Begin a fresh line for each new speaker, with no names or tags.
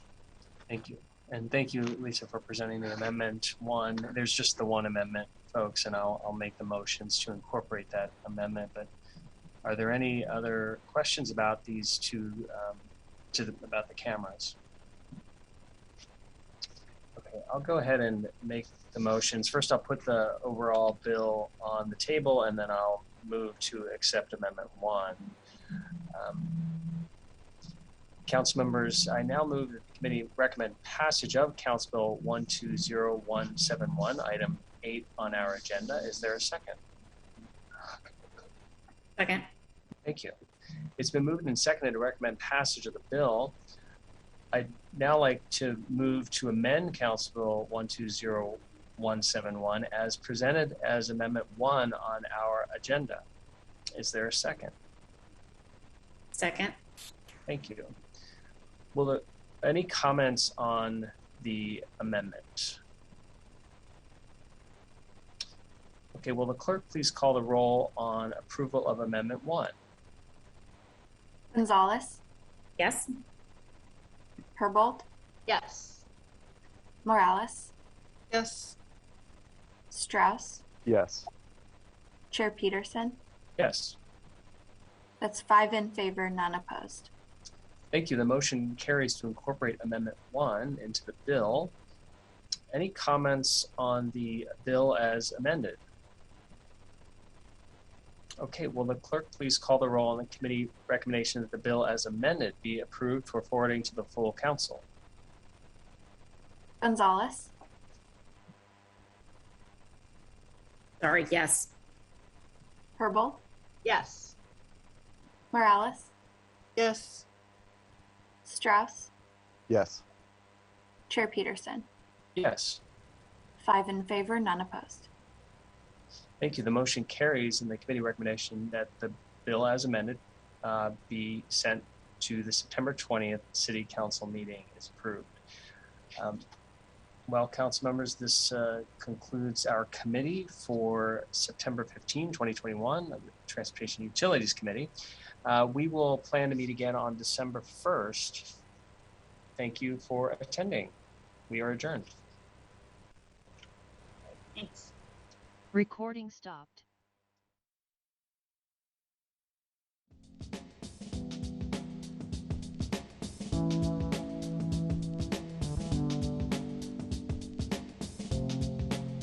Thank you. And thank you, Lisa, for presenting the amendment one. There's just the one amendment, folks, and I'll, I'll make the motions to incorporate that amendment. But are there any other questions about these two, um, to the, about the cameras? Okay, I'll go ahead and make the motions. First, I'll put the overall bill on the table and then I'll move to accept amendment one. Um, Council members, I now move that the committee recommend passage of Council Bill 120171, item eight on our agenda. Is there a second?
Second.
Thank you. It's been moved and seconded to recommend passage of the bill. I'd now like to move to amend Council Bill 120171 as presented as Amendment 1 on our agenda. Is there a second?
Second.
Thank you. Will there, any comments on the amendment? Okay, will the clerk please call the roll on approval of Amendment One?
Gonzalez,
Yes.
Herbold,
Yes.
Morales,
Yes.
Strauss,
Yes.
Chair Peterson.
Yes,
That's five in favor, none opposed.
thank you. The motion carries to incorporate Amendment One into the bill. Any comments on the bill as amended? Okay, will the clerk please call the roll on the committee recommendation that the bill as amended be approved for forwarding to the full council?
Gonzalez,
Sorry, yes.
Herbold,
Yes.
Morales,
Yes.
Strauss,
Yes.
Chair Peterson.
Yes,
Five in favor, none opposed.
thank you. The motion carries and the committee recommendation that the bill as amended uh, be sent to the September 20th city council meeting is approved. Um, Well, council members, this uh, concludes our committee for September 15, 2021, the Transportation Utilities Committee. Uh, We will plan to meet again on December 1st. Thank you for attending. We are adjourned.
Thanks.
Recording stopped.